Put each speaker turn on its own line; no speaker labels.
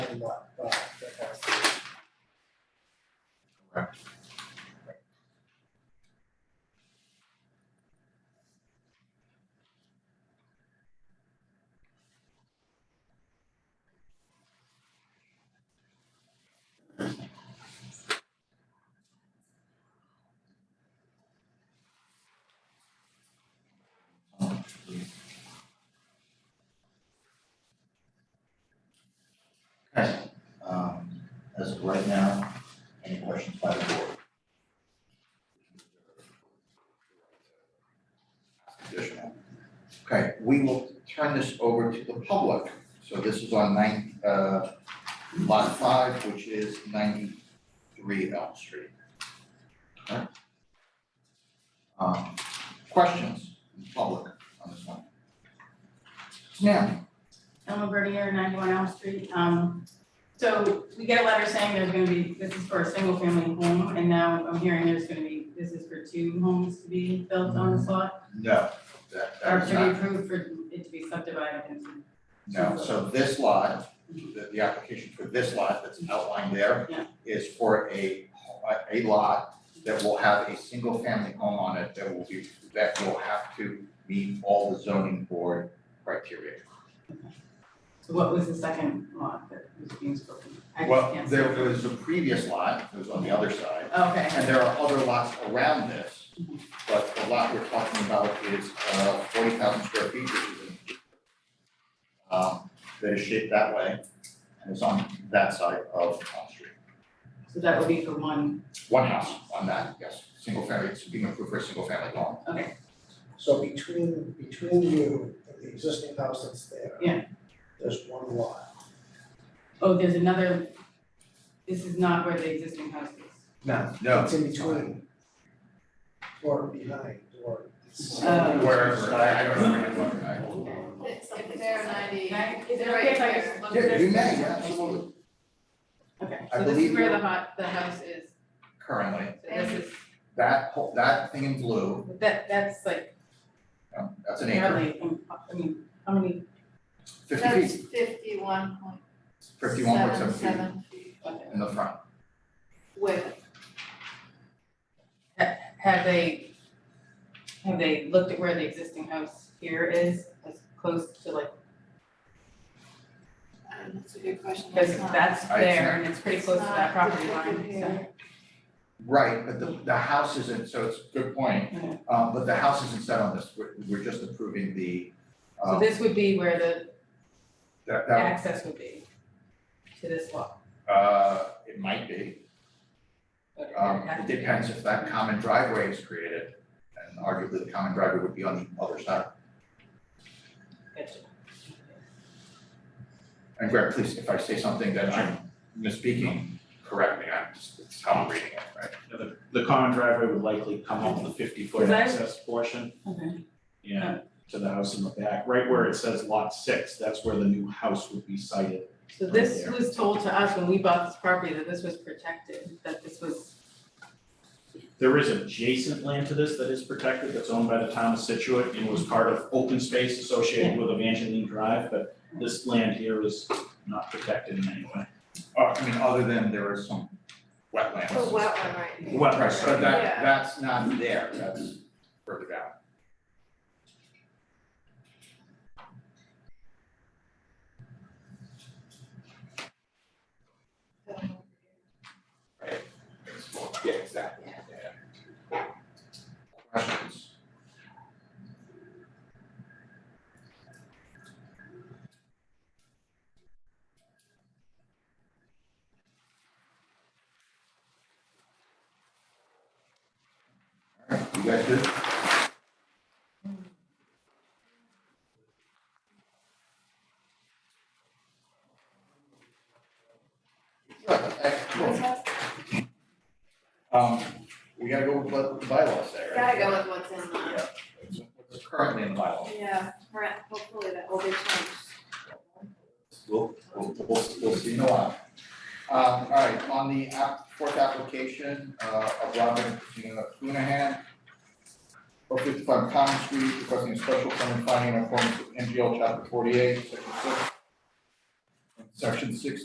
lot, uh, that has to
Okay, um, as of right now, any questions by the board? Additional. Okay, we will turn this over to the public. So this is on nine, uh, lot five, which is ninety-three Elm Street. Okay. Um, questions, in public on this one? Now,
Emma Bernier, ninety-one Elm Street. Um, so we get a letter saying there's gonna be, this is for a single family home, and now I'm hearing there's gonna be, this is for two homes to be built on this lot?
no, that, that
Or
is
to
not-
be approved for it to be subdivided into,
No, so this lot, the, the application for this lot that's outlined there
Yeah.
is for a, a lot that will have a single family home on it that will be, that will have to meet all the zoning board criteria.
so what was the second lot that was being spoken? I just
Well,
can't see.
there was a previous lot, that was on the other side,
Okay,
and there are other lots around this. But the lot we're talking about is, uh, forty thousand square feet, which is in, um, that is shaped that way, and it's on that side of Elm Street.
so that would be for one,
One house on that, yes, single family, it's being approved for a single family home.
okay,
be. So between, between you and the existing house that's there.
Yeah.
There's one lot.
oh, there's another, this is not where the existing house is.
No.
No.
It's in between. Or behind, or. it's-
Uh,
Wherever, I, I don't remember what, I.
It's like they're ninety.
Right? Is it
they're
okay if I
right
just
there.
look
Yeah,
at
you may, yeah, absolutely,
Okay,
I
so this
believe
is where
you-
the hot, the house is,
currently,
so this is,
that, whole- that thing in blue,
that, that's like
um, that's an acre,
Apparently, um, I mean, how many,
fifty
That's
feet,
fifty-one point
fifty-one point seven
seven
feet
seven feet
okay,
in the front.
width.
have they, have they looked at where the existing house here is, as close to like,
Um, That's a good question.
because
It's not-
that's
I- it's
there
not-
and it's pretty close to that
not
property line,
depicted
so.
here.
Right, but the, the house isn't, so it's a good point,
Okay.
um, but the house isn't set on this, we're, we're just approving the,
So
um,
this would be where the
that, that,
access would be to this lot.
uh, it might be.
Okay,
Um,
that-
it depends if that common driveway is created, and arguably the common driveway would be on the other side.
gotcha.
And Greg, please, if I say something that I'm misspeaking, correct me, I'm just, it's how I'm reading it, right?
You know, The, the common driveway would likely come up the fifty foot
Right.
access portion,
Okay,
yeah, to the house in the back, right where it says lot six, that's where the new house would be sited.
so this was told to us when we bought this property, that this was protected, that this was,
There is adjacent land to this that is protected, that's owned by the town of Situate and was part of open space associated with Evangeline Drive, but this land here is not protected in any way.
Uh, I mean, other than there is some wetlands.
Oh,
It's a wet one right here.
Wet- right, so that,
Yeah.
that's not there, that's further down.
So-
Yeah, exactly, yeah. Questions? Alright, you guys good? Excellent. Um, we gotta go with what the bylaws say, right?
Gotta go with what's in the,
Yeah. What's currently in the bylaw?
yeah, right, hopefully that will be changed.
We'll, we'll, we'll, we'll see in a while. Um, all right, on the app, fourth application, uh, of Robin uh, Cunahan, for fifty-five Common Street, requesting a special permit finding in accordance with MGL chapter forty-eight, section six, and section six